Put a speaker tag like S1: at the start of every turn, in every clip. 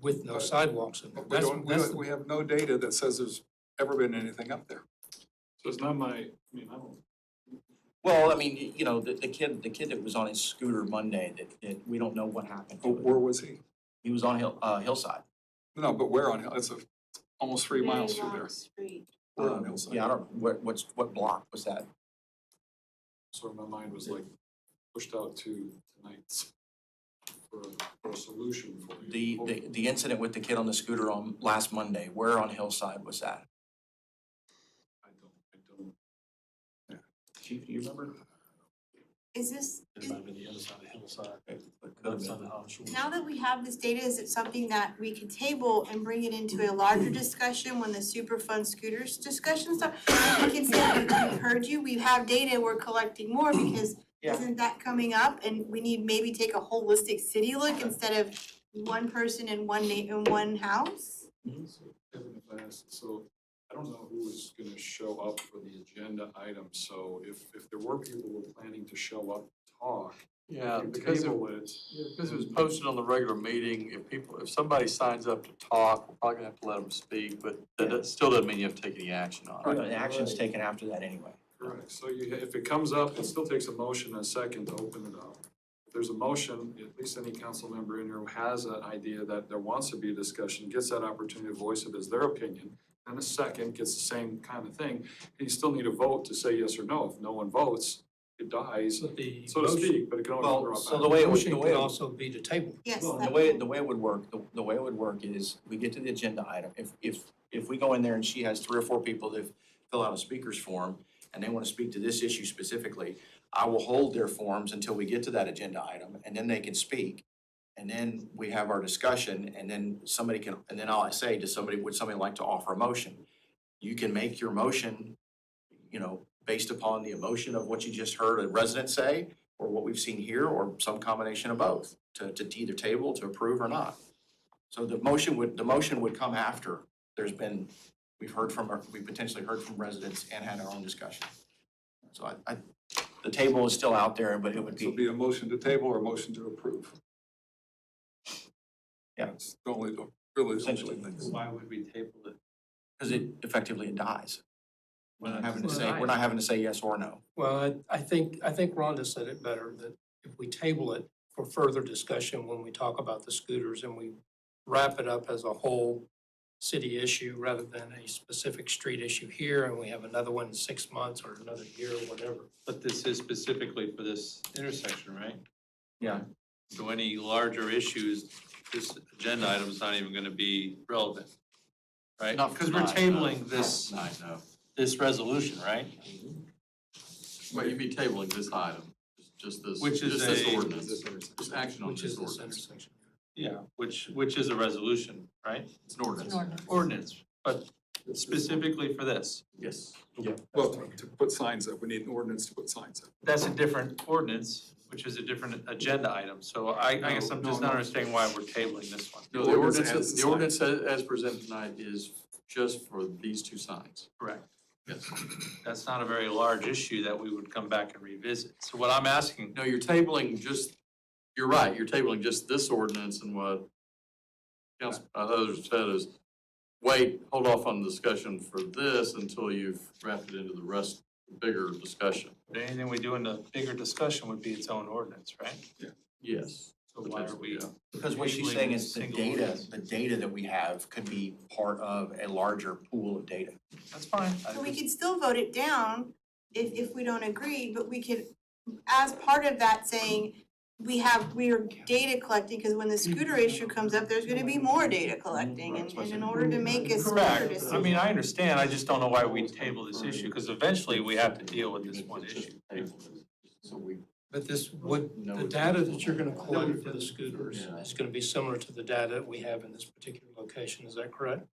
S1: with no sidewalks in there.
S2: But we
S1: That's,
S2: don't, we
S1: that's
S2: don't,
S1: the
S2: we have no data that says there's ever been anything up there.
S3: So it's not my, I mean, I don't,
S4: Well, I mean, y- you know, the, the kid, the kid that was on his scooter Monday, that, that, we don't know what happened
S3: Oh,
S2: But
S4: to
S2: Where
S4: it.
S2: was he?
S4: He was on Hill, uh, Hillside.
S2: No, but where on, Hill- it's a, almost three miles through there. Where on
S4: Um,
S2: Hillside?
S4: Yeah, I don't, what, what's, what block was that?
S3: sort of my mind was like pushed out to tonight's for a, for a solution for
S4: The,
S3: you.
S4: the, the incident with the kid on the scooter on last Monday, where on Hillside was that?
S3: I don't, I don't. Chief, do you remember?
S5: Is this,
S6: It might have been the other side of the hillside,
S4: It could have
S6: left
S4: been.
S6: side of Howard Shores.
S5: now that we have this data, is it something that we can table and bring it into a larger discussion when the Superfund scooters discussion starts? We can say, we've heard you, we have data, we're collecting more because
S4: Yeah.
S5: isn't that coming up? And we need maybe take a holistic city look instead of one person in one na- in one house?
S3: So, Kevin, if I ask, so I don't know who is gonna show up for the agenda item, so if, if there were people who were planning to show up, to talk,
S6: Yeah,
S3: we
S6: because it,
S3: table it.
S6: yeah, because it was posted on the regular meeting, if people, if somebody signs up to talk, we're probably gonna have to let them speak, but that, that still doesn't mean you have to take any action on it.
S4: An action's taken after that anyway.
S3: Correct, so you, if it comes up, it still takes a motion and a second to open it up. If there's a motion, at least any council member in here who has an idea that there wants to be a discussion, gets that opportunity to voice it as their opinion. And a second gets the same kind of thing, and you still need a vote to say yes or no. If no one votes, it dies,
S1: the
S3: so to speak, but it can always be
S4: Well,
S3: brought
S4: so
S3: back.
S4: the way it was, the
S1: motion could
S4: way it
S1: also be to table.
S5: Yes.
S4: Well, the
S5: that-
S4: way, the way it would work, the, the way it would work is, we get to the agenda item, if, if, if we go in there and she has three or four people that fill out a speaker's form, and they wanna speak to this issue specifically, I will hold their forms until we get to that agenda item, and then they can speak. And then we have our discussion, and then somebody can, and then I'll say to somebody, would somebody like to offer a motion? You can make your motion, you know, based upon the emotion of what you just heard a resident say, or what we've seen here, or some combination of both, to, to either table, to approve or not. So the motion would, the motion would come after there's been, we've heard from, our- we potentially heard from residents and had our own discussion. So I, I, the table is still out there, but it would
S2: This will
S4: be,
S2: be a motion to table or a motion to approve.
S4: Yeah.
S2: That's the only, really the only two
S4: Essentially.
S2: things.
S6: Why would we table it?
S4: because it effectively it dies. We're not having to
S1: Well,
S4: say,
S1: I-
S4: we're not having to say yes or no.
S1: Well, I, I think, I think Rhonda said it better, that if we table it for further discussion when we talk about the scooters and we wrap it up as a whole city issue rather than a specific street issue here, and we have another one in six months or another year or whatever.
S7: But this is specifically for this intersection, right?
S4: Yeah.
S7: So any larger issues, this agenda item is not even gonna be relevant, Uh, right?
S6: Not
S7: Because we're
S6: tonight, no.
S7: tabling this,
S6: I know,
S7: this resolution, right?
S6: but you'd be tabling this item, just- just this,
S7: Which is
S6: just this
S7: a-
S6: ordinance, just action on
S1: Which
S6: this
S1: is this
S6: ordinance.
S1: intersection.
S7: Yeah. Which, which is a resolution, right?
S6: It's an ordinance.
S7: Ordinance, but specifically for this.
S6: Yes.
S2: Well, to put signs up, we need an ordinance to put signs up.
S7: That's a different ordinance, which is a different agenda item. So I, I guess I'm
S2: No,
S7: just
S2: no,
S7: not
S2: no.
S7: understanding why we're tabling this one.
S6: No, the
S2: Ordinance
S6: ordinance,
S2: as
S6: is- the
S2: designed.
S6: ordinance as as presented tonight is just for these two signs.
S7: Correct.
S6: Yes.
S7: That's not a very large issue that we would come back and revisit. So what I'm asking
S6: No, you're tabling just, you're right, you're tabling just this ordinance and what council, uh, others said is, wait, hold off on the discussion for this until you've wrapped it into the rest, bigger discussion.
S7: Anything we do in the bigger discussion would be its own ordinance, right?
S6: Yes.
S7: So why are we?
S6: Potentially,
S4: Because what she's saying is the
S7: Single
S4: data,
S7: ordinance.
S4: the data that we have could be part of a larger pool of data.
S7: That's fine. I
S5: So we
S7: just-
S5: could still vote it down if, if we don't agree, but we could, as part of that, saying, we have, we are data collecting, because when the scooter issue comes up, there's gonna be more data collecting, and, and in order to make a scooter
S7: Correct. I
S5: decision.
S7: mean, I understand. I just don't know why we table this issue because eventually we have to deal with this
S6: even if
S7: one
S6: it's just
S7: issue.
S6: tabled, So we.
S1: But this would,
S6: know
S1: the
S6: it's-
S1: data that you're gonna collect for the scooters
S6: Yeah.
S1: is gonna be similar to the data that we have in this particular location, is that correct?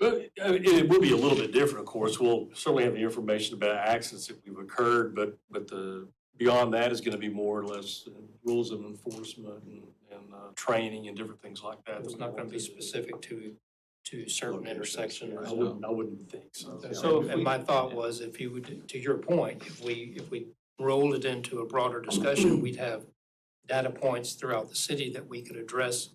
S8: Well, I mean, it will be a little bit different, of course. We'll certainly have the information about accidents that we've occurred, but, but the, beyond that is gonna be more or less rules of enforcement and, and, uh, training and different things like that. that
S1: It's
S8: we
S1: not gonna
S8: want
S1: be
S8: to do.
S1: specific to, to certain intersections.
S8: I wouldn't, I wouldn't think so.
S7: So if
S1: And
S7: we-
S1: my thought was, if you would, to your point, if we, if we rolled it into a broader discussion, we'd have data points throughout the city that we could address